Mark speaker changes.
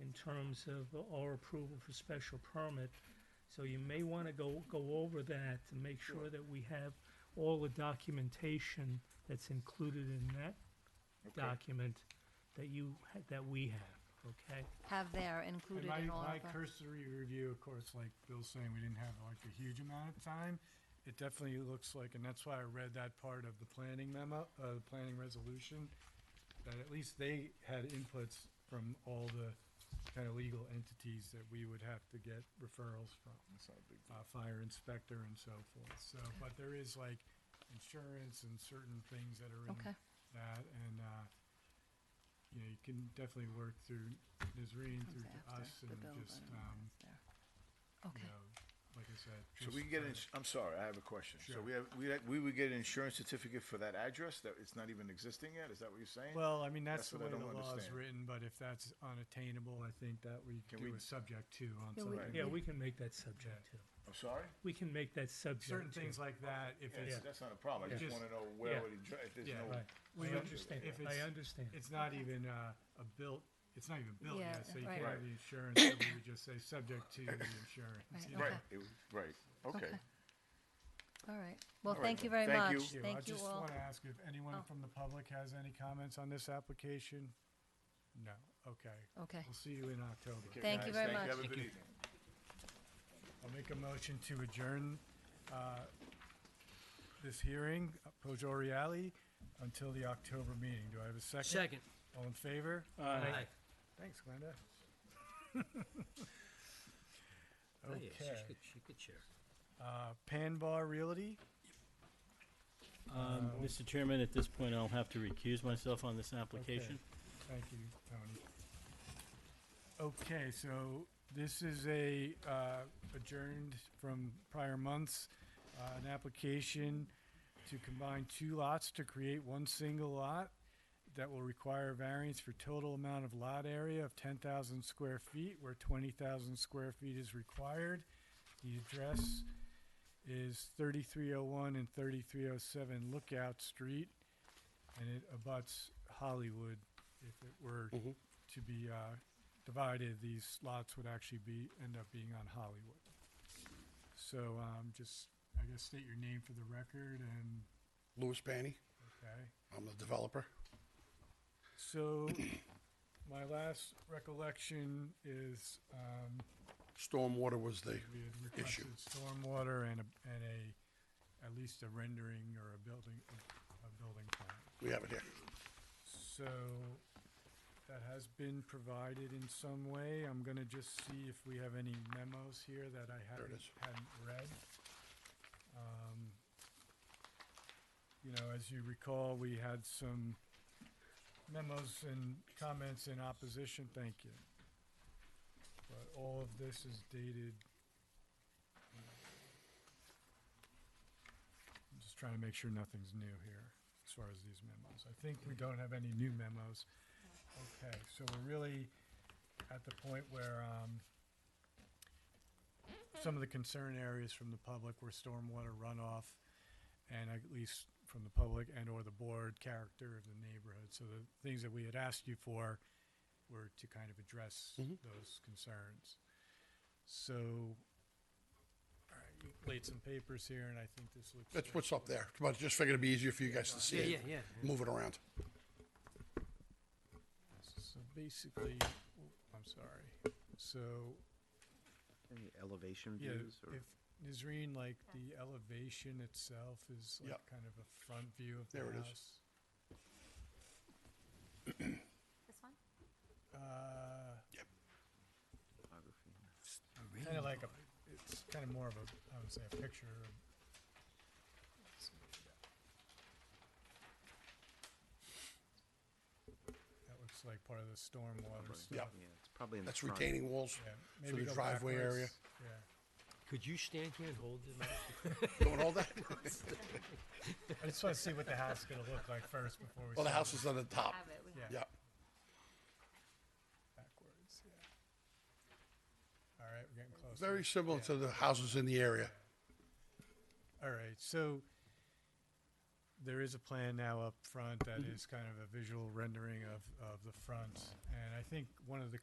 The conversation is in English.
Speaker 1: in terms of our approval for special permit. So you may want to go, go over that to make sure that we have all the documentation that's included in that
Speaker 2: Okay.
Speaker 1: document that you, ha- that we have, okay?
Speaker 3: have there
Speaker 4: And
Speaker 3: included
Speaker 4: my,
Speaker 3: in all
Speaker 4: my
Speaker 3: of them.
Speaker 4: cursory review, of course, like Bill's saying, we didn't have like a huge amount of time. It definitely looks like, and that's why I read that part of the planning memo, uh, the planning resolution, that at least they had inputs from all the kind of legal entities that we would have to get referrals from,
Speaker 2: That's not a big deal.
Speaker 4: uh, fire inspector and so forth. So, but there is like insurance and certain things that are in
Speaker 3: Okay,
Speaker 4: that, and, uh, you know, you can definitely work through Nazreen,
Speaker 3: comes
Speaker 4: through to
Speaker 3: after
Speaker 4: us,
Speaker 3: the
Speaker 4: and
Speaker 3: bill,
Speaker 4: just,
Speaker 3: but I don't know
Speaker 4: um,
Speaker 3: if it's there.
Speaker 4: you
Speaker 3: Okay,
Speaker 4: know, like I said.
Speaker 2: So
Speaker 4: just,
Speaker 2: we can get,
Speaker 4: uh,
Speaker 2: ins- I'm sorry, I have a question. So
Speaker 4: Sure.
Speaker 2: we have, we, had- we would get an insurance certificate for that address that it's not even existing yet? Is that what you're saying?
Speaker 4: Well, I mean, that's
Speaker 2: That's
Speaker 4: the
Speaker 2: what I
Speaker 4: way the
Speaker 2: don't
Speaker 4: law is
Speaker 2: understand.
Speaker 4: written, but if that's unattainable, I think that we
Speaker 2: Can
Speaker 4: do
Speaker 2: we-
Speaker 4: a subject to on
Speaker 3: Yeah, we-
Speaker 4: something.
Speaker 1: Yeah, we can make that subject too.
Speaker 2: I'm sorry?
Speaker 1: We can make that subject too.
Speaker 4: Certain things like that, if
Speaker 2: Yeah,
Speaker 4: it's,
Speaker 2: That's not a problem. I
Speaker 4: Yeah.
Speaker 2: just
Speaker 4: Just-
Speaker 2: want to know
Speaker 1: yeah.
Speaker 2: where would it, dr- if there's
Speaker 4: Yeah.
Speaker 2: no.
Speaker 1: Right. I
Speaker 4: Well,
Speaker 1: understand,
Speaker 4: if
Speaker 1: I
Speaker 4: it's-
Speaker 1: understand.
Speaker 4: it's not even, uh, a built, it's not even built
Speaker 3: Yeah,
Speaker 4: yet, so you
Speaker 3: right.
Speaker 4: can't
Speaker 2: Right.
Speaker 4: have the insurance, so we would just say, subject to the insurance.
Speaker 3: Right,
Speaker 4: you know?
Speaker 2: Right,
Speaker 3: Okay.
Speaker 2: it was- right, okay.
Speaker 3: all right. Well,
Speaker 2: All right,
Speaker 3: thank you
Speaker 2: then.
Speaker 3: very
Speaker 2: Thank
Speaker 3: much.
Speaker 2: you.
Speaker 3: Thank you
Speaker 4: I just
Speaker 3: all.
Speaker 4: want to ask if
Speaker 3: Oh.
Speaker 4: anyone from the public has any comments on this application? No, okay.
Speaker 3: Okay,
Speaker 4: We'll see you in October.
Speaker 2: Okay,
Speaker 3: Thank you
Speaker 2: guys,
Speaker 3: very much.
Speaker 2: Have a good evening.
Speaker 4: I'll make a motion to adjourn uh, this hearing, uh, Pojori Alley, until the October meeting. Do I have a second?
Speaker 5: Second.
Speaker 4: All in favor?
Speaker 5: Aye.
Speaker 4: Thanks, Glenda.
Speaker 5: Oh, yeah, she
Speaker 4: Okay.
Speaker 5: could, she could share.
Speaker 4: Uh, Pan Bar Realty,
Speaker 6: Um, Mr. Chairman, at this point, I'll have to recuse myself on this application.
Speaker 4: Thank you, Tony. Okay, so this is a uh, adjourned from prior months, uh, an application to combine two lots to create one single lot that will require variance for total amount of lot area of 10,000 square feet, where 20,000 square feet is required. The address is 3301 and 3307 Lookout Street, and it abuts Hollywood if it were to be uh, divided, these lots would actually be, end up being on Hollywood. So um, just, I guess, state your name for the record and,
Speaker 7: Louis Panny.
Speaker 4: okay.
Speaker 7: I'm the developer.
Speaker 4: So my last recollection is um,
Speaker 7: Stormwater was the,
Speaker 4: we had
Speaker 7: Issue.
Speaker 4: requested stormwater and a, and a, at least a rendering or a building, a building plan.
Speaker 7: we have it here.
Speaker 4: So that has been provided in some way. I'm gonna just see if we have any memos here that I haven't,
Speaker 7: is.
Speaker 4: hadn't read. Um, You know, as you recall, we had some memos and comments in opposition, thank you. But all of this is dated. I'm just trying to make sure nothing's new here as far as these memos. I think we don't have any new memos. Okay, so we're really at the point where, um, some of the concern areas from the public were stormwater runoff and at least from the public and or the board character of the neighborhood. So the things that we had asked you for were to kind of address those concerns. So, all right, you laid some papers here and I think this looks.
Speaker 7: That's what's up there. But just figured it'd be easier for you guys to see
Speaker 5: Yeah,
Speaker 7: it.
Speaker 5: yeah, yeah.
Speaker 7: Move it around.
Speaker 4: So basically, I'm sorry. So,
Speaker 8: Any elevation
Speaker 4: yeah,
Speaker 8: views or?
Speaker 4: if Nizreen, like the elevation itself is like
Speaker 7: Yep.
Speaker 4: kind of a front view of the
Speaker 7: There it is.
Speaker 4: house.
Speaker 9: This one?
Speaker 4: Uh,
Speaker 8: topography?
Speaker 4: kind of like a, it's kind of more of a, I would say, a picture. That looks like part of the stormwater
Speaker 8: Yeah,
Speaker 4: stuff.
Speaker 8: it's probably in the
Speaker 7: That's
Speaker 8: front.
Speaker 7: retaining walls
Speaker 4: Yeah,
Speaker 7: for
Speaker 4: maybe
Speaker 7: the
Speaker 4: go
Speaker 7: driveway area.
Speaker 4: backwards. Yeah,
Speaker 5: Could you stand here and hold the mic?
Speaker 7: Doing all that?
Speaker 4: I just want to see what the house is going to look like first before we.
Speaker 7: Well, the
Speaker 4: start
Speaker 7: house is on the top.
Speaker 9: Have it, we have it.
Speaker 7: Yeah.
Speaker 4: Backwards, yeah. All right, we're getting close.
Speaker 7: Very similar to the houses in the area.
Speaker 4: All right, so there is a plan
Speaker 7: Mm-hmm.
Speaker 4: now up front that is kind of a visual rendering of, of the front. And I think one of the